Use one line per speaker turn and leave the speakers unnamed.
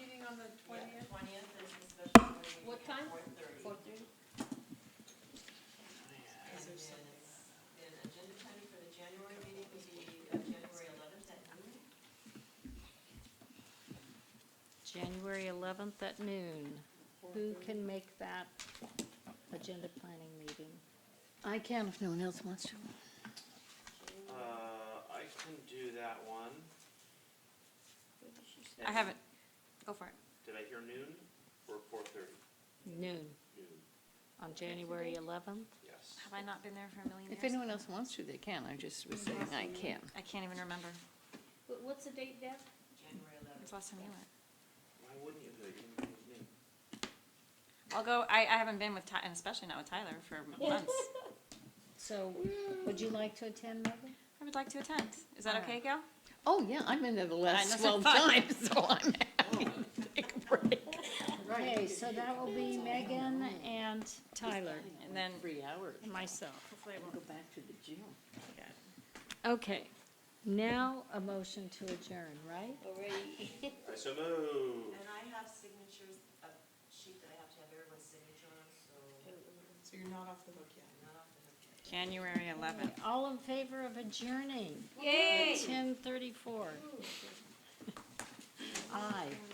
the twentieth?
Twentieth is the special meeting.
What time?
Four thirty.
Four thirty?
And then, then agenda timing for the January meeting would be uh, January eleventh at noon.
January 11th at noon. Who can make that agenda planning meeting?
I can if no one else wants to.
Uh, I can do that one.
I haven't, go for it.
Did I hear noon or four thirty?
Noon,
Noon,
on January 11th?
yes.
Have I not been there for a million
If
years?
anyone else wants to, they can. I just was saying I can.
I can't even remember.
What, what's the date, Deb?
January eleventh.
It's last time you went.
Why wouldn't you do it? You can do it with me.
I'll go, I, I haven't been with Ty, and especially not with Tyler, for months.
So would you like to attend, Megan?
I would like to attend. Is that okay, Gail?
Oh, yeah, I've been there the last
that's so
twelve
funny.
times, so I'm happy to take a break.
Okay, so that will be Megan and Tyler
And then,
Three hours.
and myself.
Go back to the gym.
Okay, now a motion to adjourn, right?
I so move.
And I have signatures, a sheet that I have to have everyone's signature on, so. So you're not off the hook yet? Not off the hook yet.
January eleventh.
All in favor of adjourning?
Yay!
Ten thirty-four.
Aye.